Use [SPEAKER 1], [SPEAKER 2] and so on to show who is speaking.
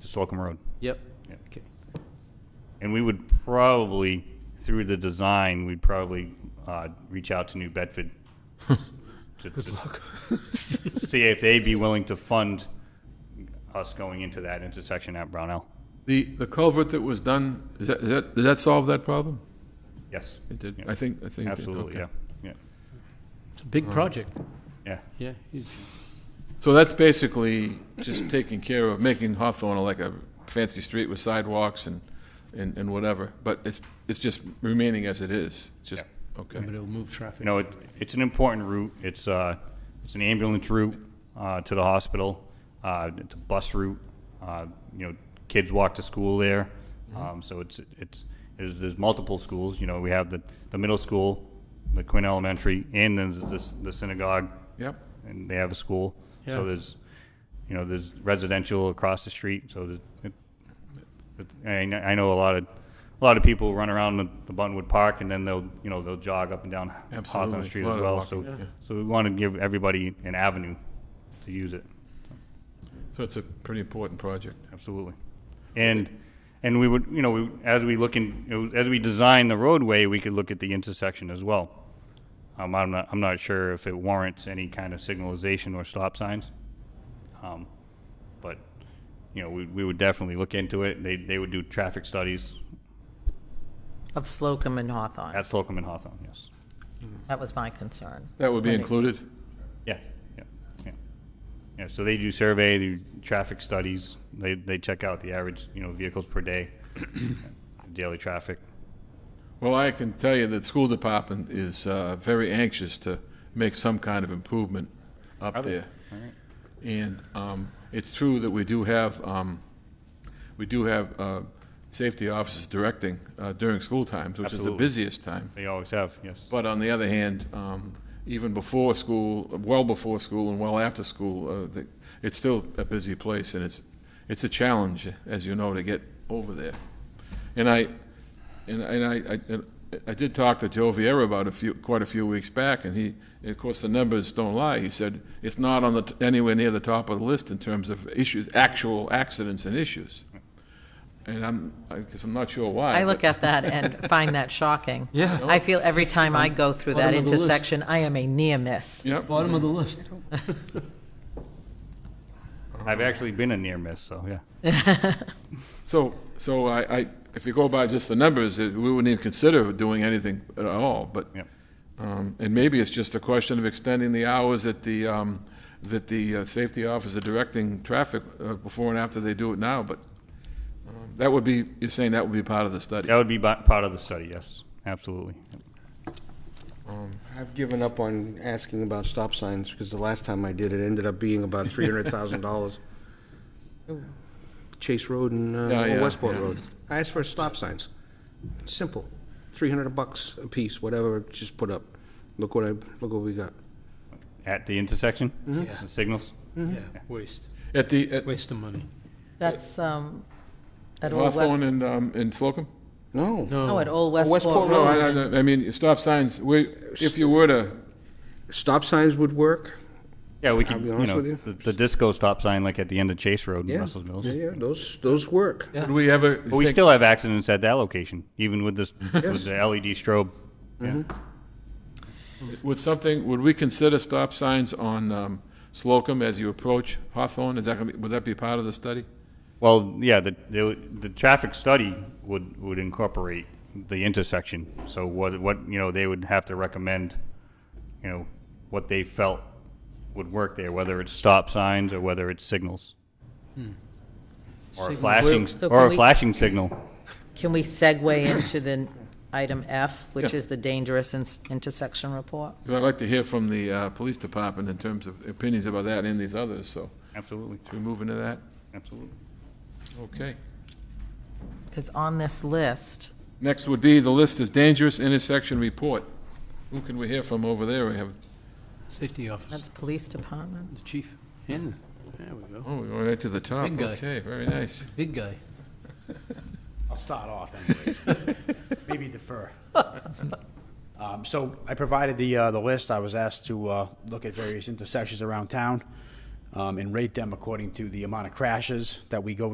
[SPEAKER 1] Slocum Road.
[SPEAKER 2] Yep.
[SPEAKER 1] Yeah.
[SPEAKER 2] Okay.
[SPEAKER 1] And we would probably, through the design, we'd probably uh, reach out to New Bedford. to- to See if they'd be willing to fund us going into that intersection at Brownell.
[SPEAKER 3] The, the culvert that was done, is that, is that, did that solve that problem?
[SPEAKER 1] Yes,
[SPEAKER 3] It did,
[SPEAKER 1] Yeah.
[SPEAKER 3] I think, I think. it did.
[SPEAKER 1] absolutely,
[SPEAKER 3] Okay.
[SPEAKER 1] yeah, yeah,
[SPEAKER 2] It's a big project.
[SPEAKER 1] yeah.
[SPEAKER 2] Yeah. huge.
[SPEAKER 3] So that's basically just taking care of, making Hawthorne like a fancy street with sidewalks and, and, and whatever. But it's, it's just remaining as it is, just, okay.
[SPEAKER 2] But it'll move traffic.
[SPEAKER 1] You know, it, it's an important route. It's, uh, it's an ambulance route, uh, to the hospital. Uh, it's a bus route. Uh, you know, kids walk to school there. Um, so it's, it's, there's, there's multiple schools. You know, we have the, the middle school, the Quinn Elementary, and then there's this, the synagogue,
[SPEAKER 3] Yep,
[SPEAKER 1] and they have a school. So
[SPEAKER 2] Yeah.
[SPEAKER 1] there's, you know, there's residential across the street, so there's, it- it- I, kn- I know a lot of, a lot of people run around the the Buttonwood Park and then they'll, you know, they'll jog up and down Hawthorne
[SPEAKER 3] Absolutely.
[SPEAKER 1] Street
[SPEAKER 3] Lot
[SPEAKER 1] as
[SPEAKER 3] of
[SPEAKER 1] well, so,
[SPEAKER 3] walking, yeah.
[SPEAKER 1] so we want to give everybody an avenue to use it,
[SPEAKER 3] so it's a pretty important project.
[SPEAKER 1] absolutely. And, and we would, you know, we- as we look in, you know, as we design the roadway, we could look at the intersection as well. Um, I'm not, I'm not sure if it warrants any kind of signalization or stop signs. Um, But, you know, we, we would definitely look into it. They, they would do traffic studies
[SPEAKER 4] Of Slocum and Hawthorne.
[SPEAKER 1] at Slocum and Hawthorne, yes.
[SPEAKER 4] That was my concern.
[SPEAKER 3] That would be
[SPEAKER 4] Right.
[SPEAKER 3] included?
[SPEAKER 1] Yeah, yeah, yeah. Yeah, so they do survey, they do traffic studies. They, they check out the average, you know, vehicles per day, daily traffic.
[SPEAKER 3] Well, I can tell you that the school department is uh, very anxious to make some kind of improvement up
[SPEAKER 1] Are they?
[SPEAKER 3] there.
[SPEAKER 1] All right.
[SPEAKER 3] And um, it's true that we do have, um, we do have uh, safety officers directing uh, during school times, which is the
[SPEAKER 1] Absolutely.
[SPEAKER 3] busiest time.
[SPEAKER 1] They always have, yes.
[SPEAKER 3] But on the other hand, um, even before school, well before school and well after school, uh, the- it's still a busy place, and it's, it's a challenge, as you know, to get over there. And I, and and I, I- and I did talk to Joe Vieira about a few, quite a few weeks back, and he, and of course, the numbers don't lie. He said, it's not on the, t- anywhere near the top of the list in terms of issues, actual accidents and issues. And I'm, I guess I'm not sure why.
[SPEAKER 4] I
[SPEAKER 3] but-
[SPEAKER 4] look at that and find that shocking. Yeah. I feel every time I go through that
[SPEAKER 2] Bottom of the list.
[SPEAKER 4] intersection, I am a near miss.
[SPEAKER 3] Yep.
[SPEAKER 2] Bottom of the list.
[SPEAKER 1] I've actually been a near miss, so, yeah.
[SPEAKER 3] So, so I, I, if you go by just the numbers, it- we wouldn't even consider doing anything at all, but,
[SPEAKER 1] Yep.
[SPEAKER 3] um, and maybe it's just a question of extending the hours that the, um, that the uh, safety officer directing traffic uh, before and after they do it now, but um, that would be, you're saying that would be part of the study?
[SPEAKER 1] That would be bu- part of the study, yes, absolutely.
[SPEAKER 5] I've given up on asking about stop signs because the last time I did, it ended up being about three hundred thousand dollars. Chase Road and uh,
[SPEAKER 3] Yeah,
[SPEAKER 5] or
[SPEAKER 3] yeah,
[SPEAKER 5] Westport
[SPEAKER 3] yeah.
[SPEAKER 5] Road. I asked for stop signs. Simple, three hundred bucks a piece, whatever. Just put up. Look what I look what we got.
[SPEAKER 1] At the intersection?
[SPEAKER 2] Yeah.
[SPEAKER 1] The signals?
[SPEAKER 2] Yeah, waste,
[SPEAKER 3] At the, at
[SPEAKER 2] waste of money.
[SPEAKER 4] That's, um, at Old
[SPEAKER 3] Hawthorne
[SPEAKER 4] West,
[SPEAKER 3] and, um, and Slocum?
[SPEAKER 5] No,
[SPEAKER 4] no, at Old
[SPEAKER 5] Westport
[SPEAKER 1] Oh,
[SPEAKER 4] Westport
[SPEAKER 3] No, I,
[SPEAKER 4] Road.
[SPEAKER 3] I- I mean, stop signs, we, if you were to,
[SPEAKER 5] stop signs would work.
[SPEAKER 1] Yeah, we
[SPEAKER 5] I'll
[SPEAKER 1] could,
[SPEAKER 5] be
[SPEAKER 1] you
[SPEAKER 5] honest
[SPEAKER 1] know,
[SPEAKER 5] with you.
[SPEAKER 1] the the disco stop sign like at the end of Chase Road in
[SPEAKER 5] Yeah,
[SPEAKER 1] Russell's Mills.
[SPEAKER 5] yeah, yeah. Those those work.
[SPEAKER 3] would we ever
[SPEAKER 1] But we
[SPEAKER 3] think,
[SPEAKER 1] still have accidents at that location, even with this, with the LED strobe. Yeah.
[SPEAKER 3] would something, would we consider stop signs on um, Slocum as you approach Hawthorne? Is that gonna be, would that be part of the study?
[SPEAKER 1] Well, yeah, the, the, the traffic study would, would incorporate the intersection. So what, what, you know, they would have to recommend, you know, what they felt would work there, whether it's stop signs or whether it's signals. Or a flashing,
[SPEAKER 4] So
[SPEAKER 1] or
[SPEAKER 4] can
[SPEAKER 1] a
[SPEAKER 4] we-
[SPEAKER 1] flashing signal.
[SPEAKER 4] Can we segue into the item F, which
[SPEAKER 3] Yeah.
[SPEAKER 4] is the dangerous in- intersection report?
[SPEAKER 3] 'Cause I'd like to hear from the uh, police department in terms of opinions about that and these others, so
[SPEAKER 1] Absolutely,
[SPEAKER 3] should we move into that?
[SPEAKER 1] absolutely.
[SPEAKER 3] Okay.
[SPEAKER 4] Because on this list,
[SPEAKER 3] Next would be, the list is dangerous intersection report. Who can we hear from over there? We have,
[SPEAKER 2] Safety officer,
[SPEAKER 4] that's police department.
[SPEAKER 2] the chief, and, the- there we go,
[SPEAKER 3] oh, we're going right to the top.
[SPEAKER 2] Big guy.
[SPEAKER 3] Okay, very nice.
[SPEAKER 2] big guy.
[SPEAKER 6] I'll start off anyways. Maybe defer. Um, So I provided the, uh, the list. I was asked to uh, look at various intersections around town um, and rate them according to the amount of crashes that we go